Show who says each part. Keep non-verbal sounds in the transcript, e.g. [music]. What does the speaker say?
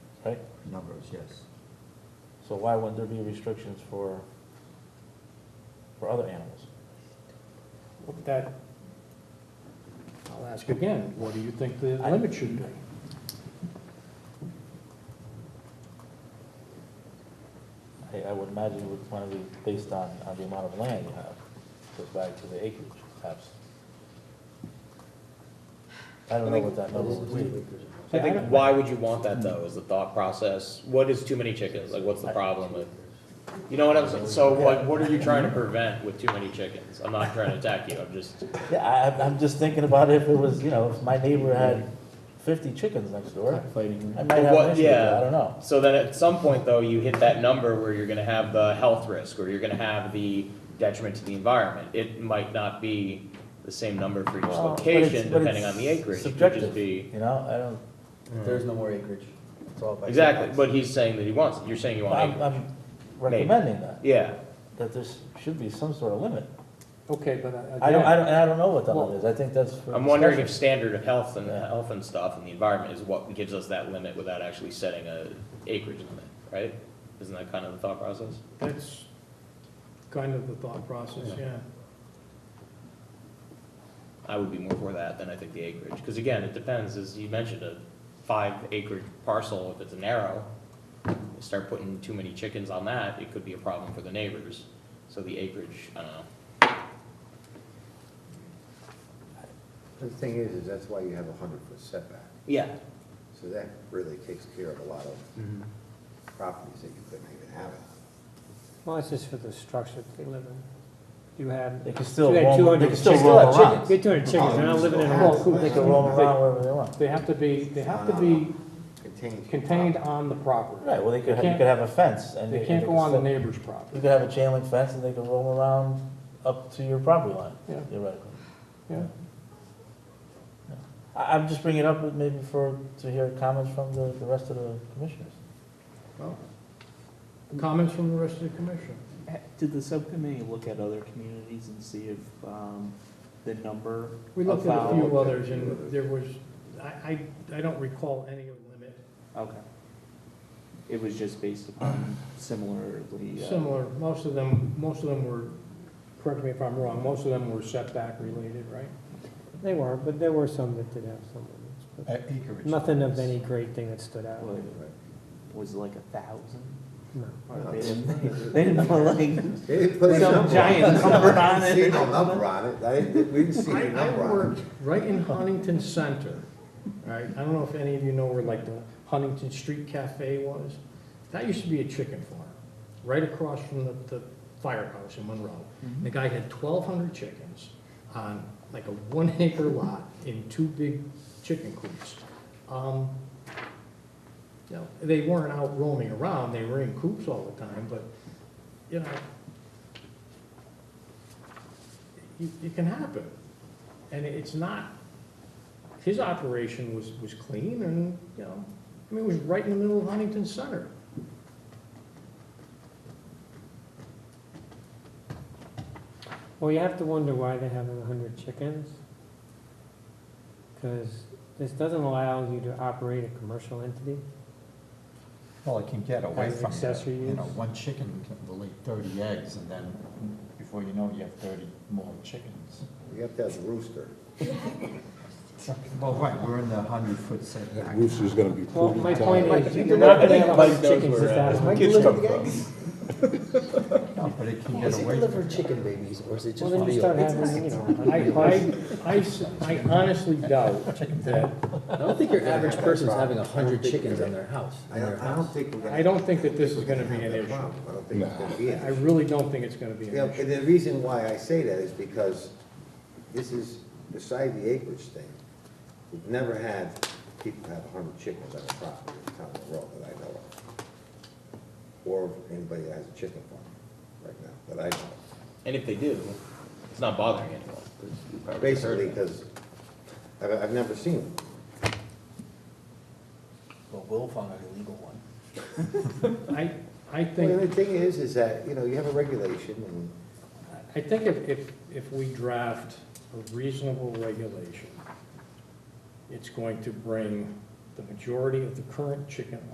Speaker 1: right?
Speaker 2: numbers, yes.
Speaker 1: So why wouldn't there be restrictions for, for other animals?
Speaker 3: What That, I'll ask again, what do you think the
Speaker 1: I-
Speaker 3: limit should be?
Speaker 1: I, I would imagine it would want to be based on, on the amount of land you have, goes back to the acreage, perhaps. I don't know what that number would
Speaker 4: [laughs]
Speaker 1: be.
Speaker 4: I think, why would you want that though, is the thought process, what is too many chickens, like, what's the problem with? You know what I'm saying, so what, what are you trying to prevent with too many chickens? I'm not trying to attack you, I'm just,
Speaker 1: Yeah, I, I'm- I'm just thinking about if it was, you know, if my neighbor had fifty chickens next door, I might have
Speaker 4: What-
Speaker 1: an issue with that,
Speaker 4: yeah.
Speaker 1: I don't know.
Speaker 4: so then at some point though, you hit that number where you're gonna have the health risk, or you're gonna have the detriment to the environment. It might not be the same number for each
Speaker 1: Well, but it's-
Speaker 4: location,
Speaker 1: but
Speaker 4: depending
Speaker 1: it's
Speaker 4: on the acreage, it could just
Speaker 1: Subjective,
Speaker 4: be.
Speaker 1: you know, I don't,
Speaker 2: There's no more acreage. It's all by.
Speaker 4: Exactly,
Speaker 2: setbacks.
Speaker 4: but he's saying that he wants, it. you're saying you want
Speaker 1: I'm,
Speaker 4: acreage,
Speaker 1: I'm recommending that,
Speaker 4: yeah.
Speaker 1: that there should be some sort of limit.
Speaker 3: Okay, but I-
Speaker 1: I don't, I
Speaker 3: again,
Speaker 1: don't, and I don't know what that
Speaker 3: Well-
Speaker 1: limit is, I think that's for
Speaker 4: I'm wondering if
Speaker 1: discussion.
Speaker 4: standard of health and, uh,
Speaker 1: Yeah.
Speaker 4: health and stuff and the environment is what gives us that limit without actually setting a acreage limit, right? Isn't that kind of the thought process?
Speaker 5: That's kind of the thought process, yeah.
Speaker 4: I would be more for that than I think the acreage, because again, it depends, as you mentioned, a five acre parcel, if it's narrow, you start putting too many chickens on that, it could be a problem for the neighbors, so the acreage, I don't know.
Speaker 6: The thing is, is that's why you have a hundred foot setback,
Speaker 4: Yeah.
Speaker 6: so that really takes care of a lot of properties that you couldn't even have it on.
Speaker 7: Well, it's just for the structure that they live in. You have,
Speaker 1: They
Speaker 7: you
Speaker 1: can still
Speaker 7: had
Speaker 1: roam, they
Speaker 7: 200
Speaker 1: can
Speaker 7: chickens.
Speaker 1: still roam around.
Speaker 7: You had 200 chickens, they're not living in a whole coop.
Speaker 1: They can roam around wherever they want.
Speaker 3: they have to be, they have to be
Speaker 6: Contained.
Speaker 3: contained on the property.
Speaker 1: Right, well, they could,
Speaker 3: They
Speaker 1: you
Speaker 3: can't-
Speaker 1: could have a fence and.
Speaker 3: They
Speaker 1: and
Speaker 3: can't
Speaker 1: could
Speaker 3: go on the
Speaker 1: still-
Speaker 3: neighbor's
Speaker 1: You
Speaker 3: property.
Speaker 1: could have a chain link fence and they could roam around up to your property line,
Speaker 3: Yeah,
Speaker 1: theoretically.
Speaker 3: yeah.
Speaker 1: I, I'm just bringing it up maybe for, to hear comments from the, the rest of the commissioners.
Speaker 5: Comments from the rest of the commission?
Speaker 8: Did the subcommittee look at other communities and see if um, the number
Speaker 5: We looked at a
Speaker 8: About-
Speaker 5: few others, and there was, I, I, I don't recall any limit
Speaker 8: Okay. It was just based upon similarly. uh,
Speaker 5: similar. Most of them, most of them were, correct me if I'm wrong, most of them were setback related, right?
Speaker 7: They were, but there were some that did have some limits, but
Speaker 2: Acreage.
Speaker 7: nothing of any great thing that stood out.
Speaker 8: what, Was it like a thousand?
Speaker 7: No.
Speaker 8: Or They didn't they didn't put like
Speaker 6: They didn't put a
Speaker 8: Some
Speaker 6: number on it.
Speaker 8: giant number
Speaker 6: I
Speaker 8: on
Speaker 6: didn't
Speaker 8: it.
Speaker 6: See no number on it, I didn't, we didn't see
Speaker 5: I,
Speaker 6: any
Speaker 5: I
Speaker 6: number on it.
Speaker 5: worked
Speaker 7: [laughs]
Speaker 5: right in Huntington Center, right? I don't know if any of you know where like the Huntington Street Cafe was. That used to be a chicken farm, right across from the, the firehouse in Monroe.
Speaker 8: Mm-hmm.
Speaker 5: The guy had twelve hundred chickens on like a one [laughs] acre lot in two big chicken coops. Um, You know, they weren't out roaming around, they were in coops all the time, but, you know, it, it can happen. And it's not, his operation was, was clean and, you know, I mean, it was right in the middle of Huntington Center.
Speaker 7: Well, you have to wonder why they have a hundred chickens. Because this doesn't allow you to operate a commercial entity.
Speaker 2: Well, it can get away
Speaker 7: As
Speaker 2: from that,
Speaker 7: accessory
Speaker 2: you know,
Speaker 7: use.
Speaker 2: one chicken can lay thirty eggs, and then before you know it, you have thirty more chickens.
Speaker 6: You have to have a rooster.
Speaker 2: Well, right, we're in the hundred foot setback.
Speaker 9: Rooster's gonna be
Speaker 7: Well, my point is,
Speaker 4: Mike,
Speaker 7: you're not gonna have a
Speaker 4: Mike
Speaker 7: hundred
Speaker 4: knows
Speaker 7: chickens
Speaker 4: where,
Speaker 7: just
Speaker 4: uh,
Speaker 7: out of.
Speaker 6: Kids come from.
Speaker 2: No, but it can get away from that.
Speaker 6: chicken babies, or is it
Speaker 7: Well, then you start having, you know.
Speaker 5: I, I, I s- I honestly doubt that,
Speaker 10: I don't think your average person's having a hundred
Speaker 6: think
Speaker 10: chickens
Speaker 6: you're
Speaker 10: on their house.
Speaker 6: I don't, I don't think we're gonna.
Speaker 5: I don't think that this is gonna be an
Speaker 6: have that
Speaker 5: issue.
Speaker 6: problem. I don't think it's gonna be an
Speaker 5: I
Speaker 6: issue.
Speaker 5: really don't think it's gonna be an
Speaker 6: Yeah,
Speaker 5: issue.
Speaker 6: and the reason why I say that is because this is beside the acreage thing. We've never had people have hundred chickens on a property in town of Monroe that I know of. Or anybody that has a chicken farm right now, that I know of.
Speaker 4: And if they do, it's not bothering anyone. 'cause you probably heard
Speaker 6: Basically,
Speaker 4: of it.
Speaker 6: because I've, I've never seen them.
Speaker 1: Well, Will found an illegal one.
Speaker 5: I, I think.
Speaker 6: Well, the thing is, is that, you know, you have a regulation and
Speaker 5: I think if, if, if we draft a reasonable regulation, it's going to bring the majority of the current chicken